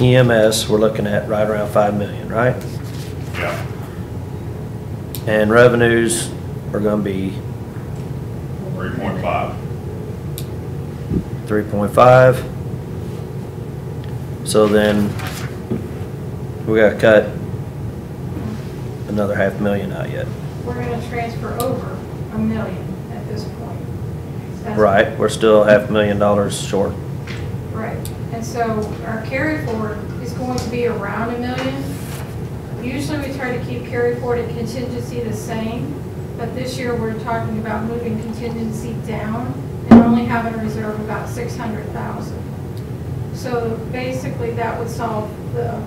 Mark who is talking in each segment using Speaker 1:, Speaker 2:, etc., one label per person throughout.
Speaker 1: EMS, E we're looking at right around five million, right?
Speaker 2: Yeah.
Speaker 1: And revenues are gonna be
Speaker 2: Three point five.
Speaker 1: three point five. So then, we gotta cut another half million out yet.
Speaker 3: We're gonna transfer over a million at this point. That's-
Speaker 1: Right, we're still half million dollars short.
Speaker 3: Right, and so our carry forward is going to be around a million. Usually we try to keep carry forward and contingency the same, but this year we're talking about moving contingency down and only having a reserve about six hundred thousand. So basically, that would solve the,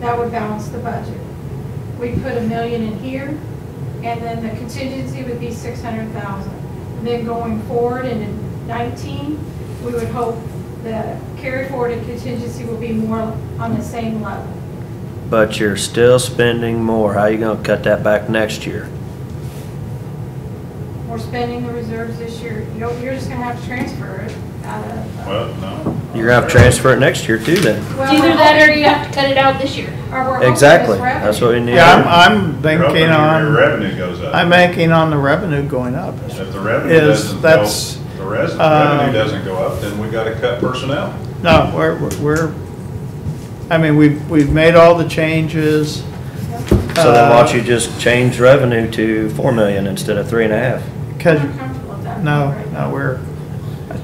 Speaker 3: that would balance the budget. We'd put a million in here, and then the contingency would be six hundred thousand. Then going forward in nineteen, we would hope the carry forward and contingency will be more on the same level.
Speaker 1: But you're still spending more. How you gonna cut that back next year?
Speaker 3: We're spending the reserves this year, you know, you're just gonna have to transfer it out of. uh,
Speaker 2: Well, no.
Speaker 1: You're gonna have to transfer it next year too then.
Speaker 3: Well,
Speaker 4: Either
Speaker 3: we're
Speaker 4: that or
Speaker 3: hoping-
Speaker 4: you have to cut it out this year.
Speaker 3: or we're hoping it's
Speaker 1: Exactly, that's what we
Speaker 3: revenue.
Speaker 1: need.
Speaker 5: Yeah, I'm, I'm
Speaker 2: You're hoping
Speaker 5: banking
Speaker 2: Your
Speaker 5: on,
Speaker 2: revenue goes up.
Speaker 5: I'm banking on the revenue going up.
Speaker 2: If the revenue
Speaker 5: is-
Speaker 2: doesn't go,
Speaker 5: that's,
Speaker 2: the res,
Speaker 5: uh,
Speaker 2: revenue doesn't go up, then we gotta cut personnel.
Speaker 5: No, we're, we're, I mean, we've, we've made all the changes.
Speaker 1: So then
Speaker 5: uh,
Speaker 1: why don't you just change revenue to four million instead of three and a half?
Speaker 5: Cause,
Speaker 3: We're not comfortable with that.
Speaker 5: no,
Speaker 3: right
Speaker 5: no,
Speaker 3: now.
Speaker 5: we're,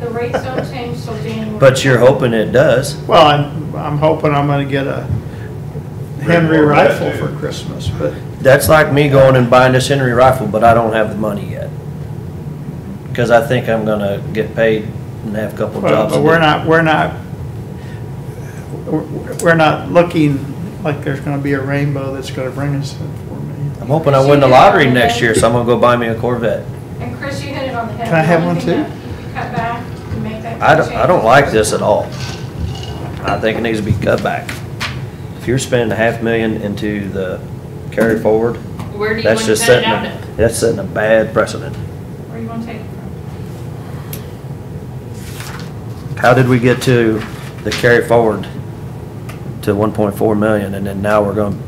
Speaker 3: The rates don't change till January.
Speaker 1: But you're hoping it does.
Speaker 5: well, I'm, I'm hoping I'm gonna get a Henry
Speaker 2: Revolver, that
Speaker 5: rifle for
Speaker 2: dude.
Speaker 5: Christmas, but,
Speaker 1: That's like me going and buying this Henry rifle, but I don't have the money yet. Because I think I'm gonna get paid and have a couple jobs.
Speaker 5: but we're not, we're not, we're we're not looking like there's gonna be a rainbow that's gonna bring us in for me.
Speaker 1: I'm hoping I win the lottery next year, so I'm gonna go buy me a Corvette.
Speaker 3: And Chris, you hit it on the head.
Speaker 5: Can I have one
Speaker 3: The only thing
Speaker 5: too?
Speaker 3: that you could Cut back to make that.
Speaker 1: I don't, I don't
Speaker 3: change.
Speaker 1: like this at all. I think it needs to be cut back. If you're spending a half million into the carry forward,
Speaker 4: Where do you want
Speaker 1: that's
Speaker 4: to
Speaker 1: just
Speaker 4: cut it
Speaker 1: setting,
Speaker 4: out
Speaker 1: a-
Speaker 4: at?
Speaker 1: that's setting a bad precedent.
Speaker 3: Where you wanna take it from?
Speaker 1: How did we get to the carry forward to one point four million, and then now we're gonna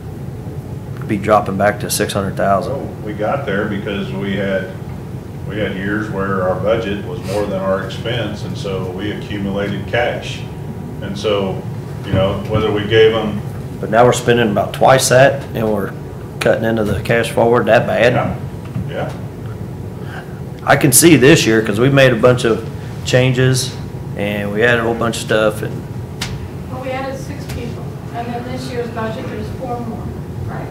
Speaker 1: be dropping back to six hundred thousand?
Speaker 2: So we got there because we had, we had years where our budget was more than our expense, and so we accumulated cash. And so, you know, whether we gave them,
Speaker 1: But now we're spending about twice that, and we're cutting into the cash forward that
Speaker 2: yeah,
Speaker 1: bad?
Speaker 2: yeah.
Speaker 1: I can see this year, because we made a bunch of changes, and we added a whole bunch of stuff, and
Speaker 3: Well, we added six people, and then this year's budget, there's four more, right?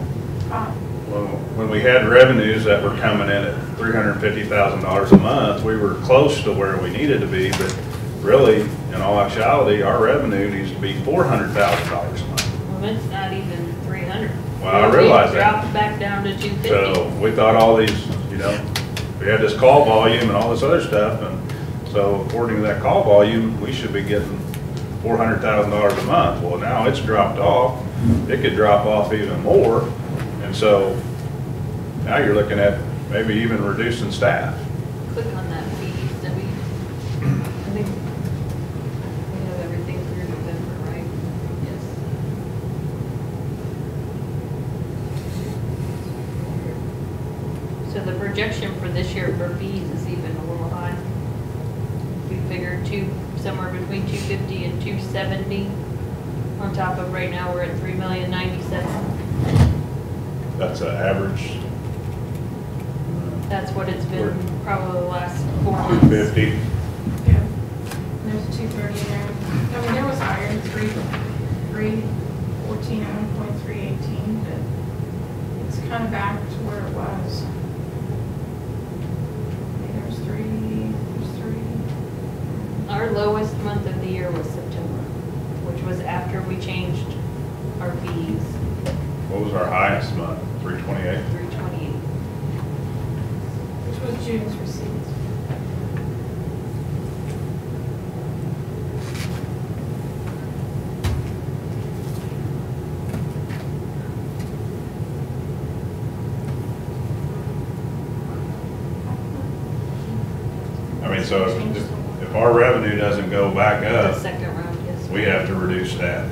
Speaker 3: Five.
Speaker 2: Well, when we had revenues that were coming in at three hundred and fifty thousand dollars a month, we were close to where we needed to be, but really, in all actuality, our revenue needs to be four hundred thousand dollars a month.
Speaker 4: Well, it's not even three hundred.
Speaker 2: Well, I realize that.
Speaker 4: Dropped back down to two fifty.
Speaker 2: So we thought all these, you know, we had this call volume and all this other stuff, and so according to that call volume, we should be getting four hundred thousand dollars a month. Well, now it's dropped off, it could drop off even more, and so now you're looking at maybe even reducing staff.
Speaker 4: Click on that feed that we, I think, we have everything through November, right? Yes. So the projection for this year for fees is even a little high. We figured two, somewhere between two fifty and two seventy. On top of right now, we're at three million ninety-seven.
Speaker 2: That's an average
Speaker 4: That's what it's been
Speaker 2: We're-
Speaker 4: probably the last four months.
Speaker 2: 250.
Speaker 3: Yeah. And There's two thirty there. I mean, there was higher, three, three fourteen, one point three eighteen, but it's kind of back to where it was. I think There's three, there's three.
Speaker 4: Our lowest month of the year was September, which was after we changed our fees,
Speaker 2: What was our highest month? 328?
Speaker 4: 328.
Speaker 3: Which was June's receipts.
Speaker 2: I mean, so if, if our revenue doesn't go back
Speaker 4: The
Speaker 2: up,
Speaker 4: second round, yes.
Speaker 2: we Oh. have to reduce staff.